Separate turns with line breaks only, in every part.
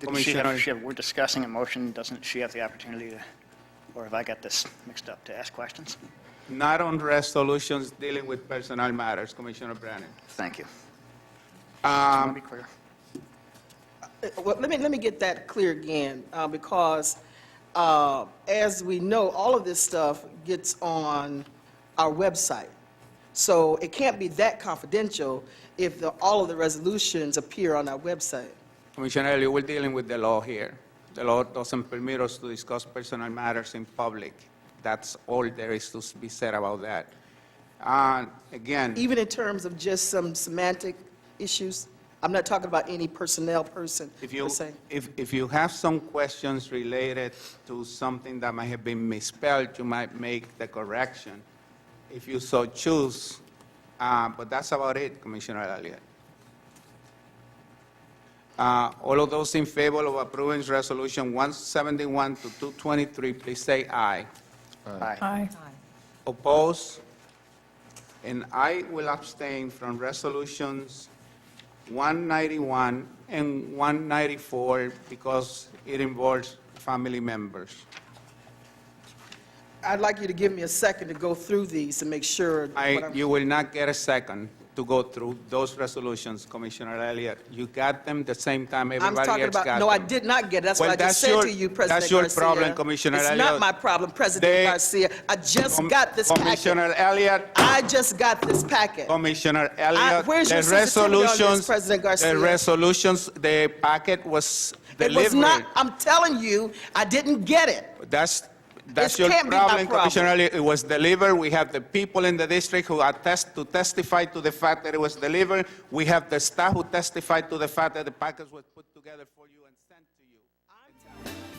Didn't
mean,
she
she
have,
had-
she have- we're discussing a motion, doesn't she have the opportunity to, or have I got this mixed up, to ask questions?
Not on resolutions dealing with personal matters, Commissioner Brennan.
Thank you.
Um,
Let me be clear.
Uh, Well, let me, let me get that clear again, uh, because uh, as we know, all of this stuff gets on our website. So it can't be that confidential if the, all of the resolutions appear on our website.
Commissioner Elliott, we're dealing with the law here. The law doesn't permit us to discuss personal matters in public. That's all there is to be said about that. And again,
Even in terms of just some semantic issues, I'm not talking about any personnel person,
if
per
you,
se.
if, if you have some questions related to something that might have been misspelled, you might make the correction if you so choose. Uh, But that's about it, Commissioner Elliott. Uh, All of those in favor of approving Resolution 171 to 223, please say aye.
Aye.
Aye.
Oppose? And I will abstain from Resolutions 191 and 194 because it involves family members.
I'd like you to give me a second to go through these and make sure. what
I,
I'm-
you will not get a second to go through those resolutions, Commissioner Elliott. You got them the same time
I'm
everybody else
talking
got them.
about, no, I did not get it. That's what
Well,
I just
that's
said
your-
to you, President
that's your
Garcia.
problem, Commissioner
It's
Elliott.
not my problem, President
They-
Garcia. I just
Com-
got this packet.
Commissioner Elliott,
I just got this packet.
Commissioner Elliott,
where's your
the
sensitivity on this,
resolutions,
President Garcia?
the resolutions, the packet was
It was not,
delivered.
I'm telling you, I didn't get it.
That's, that's
This
your
can't be my
problem,
problem.
Commissioner Elliott. It was delivered. We have the people in the district who attest to testify to the fact that it was delivered. We have the staff who testified to the fact that the package was put together for you and sent to you.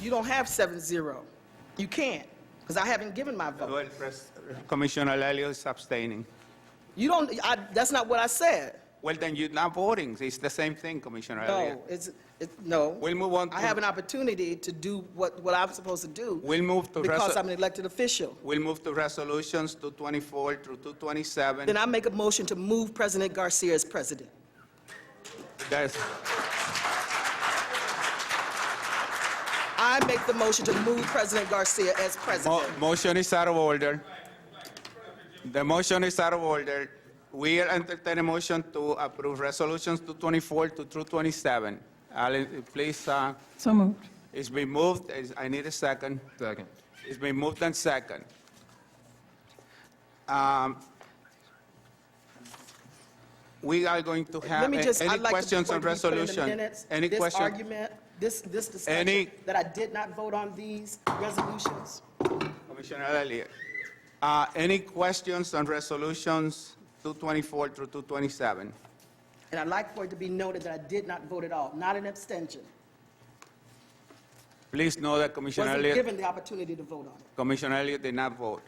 You don't have seven zero. You can't, because I haven't given my vote.
Well, Pres- Commissioner Elliott is abstaining.
You don't, I, that's not what I said.
Well, then you're not voting. It's the same thing, Commissioner Elliott.
No, it's, it's, no.
We'll move on
I
to-
have an opportunity to do what, what I'm supposed to do.
We'll move to
Because
reso-
I'm an elected official.
We'll move to resolutions 224 through 227.
Then I make a motion to move President Garcia as president.
That's-
I make the motion to move President Garcia as president.
Mo- Motion is out of order. The motion is out of order. We are entertaining motion to approve resolutions 224 to 227. Alan, please, uh,
So moved.
it's been moved, Is- I need a second.
Second.
It's been moved and second. Um, We are going to
Let
have,
me just,
a- any
I'd like to
questions on
point to be put in the
resolution?
minutes,
Any
This
question?
argument, this, this discussion,
Any-
that I did not vote on these resolutions.
Commissioner Elliott, uh, any questions on resolutions 224 through 227?
And I'd like for it to be noted that I did not vote at all, not an abstention.
Please know that Commissioner
Wasn't
Elliott,
given the opportunity to vote on it
Commissioner Elliott did not vote.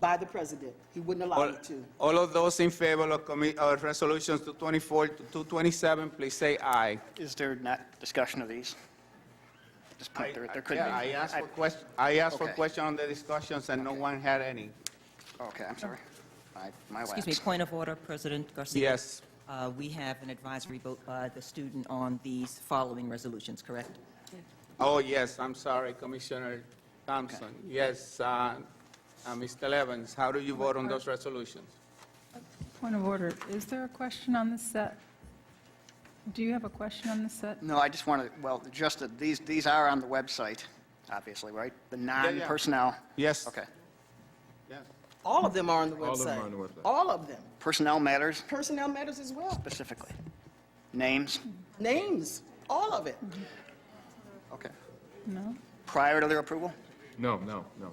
by the president. He wouldn't allow
All
me to.
all of those in favor of commi- of resolutions 224 to 227, please say aye.
Is there not discussion of these? At This point, there, there could be.
Yeah, I asked for
I-
question, I asked for
Okay.
question on the discussions, and no one had any.
Okay, I'm sorry. My, my
Excuse me,
lapse.
point of order, President Garcia.
Yes,
Uh, We have an advisory vote by the student on these following resolutions, correct?
oh, yes, I'm sorry, Commissioner Thompson. Yes, uh, uh, Mr. Evans, how do you vote on those resolutions?
Point of order, is there a question on the set? Do you have a question on the set?
No, I just wanted, well, just that these, these are on the website, obviously, right? The non-personnel.
Yes.
Okay.
Yes.
All of them are on the website.
All of them are on the website.
All of them.
Personnel matters
Personnel matters as well.
specifically. Names,
Names, all of it.
okay.
No?
Prior to their approval?
No, no, no.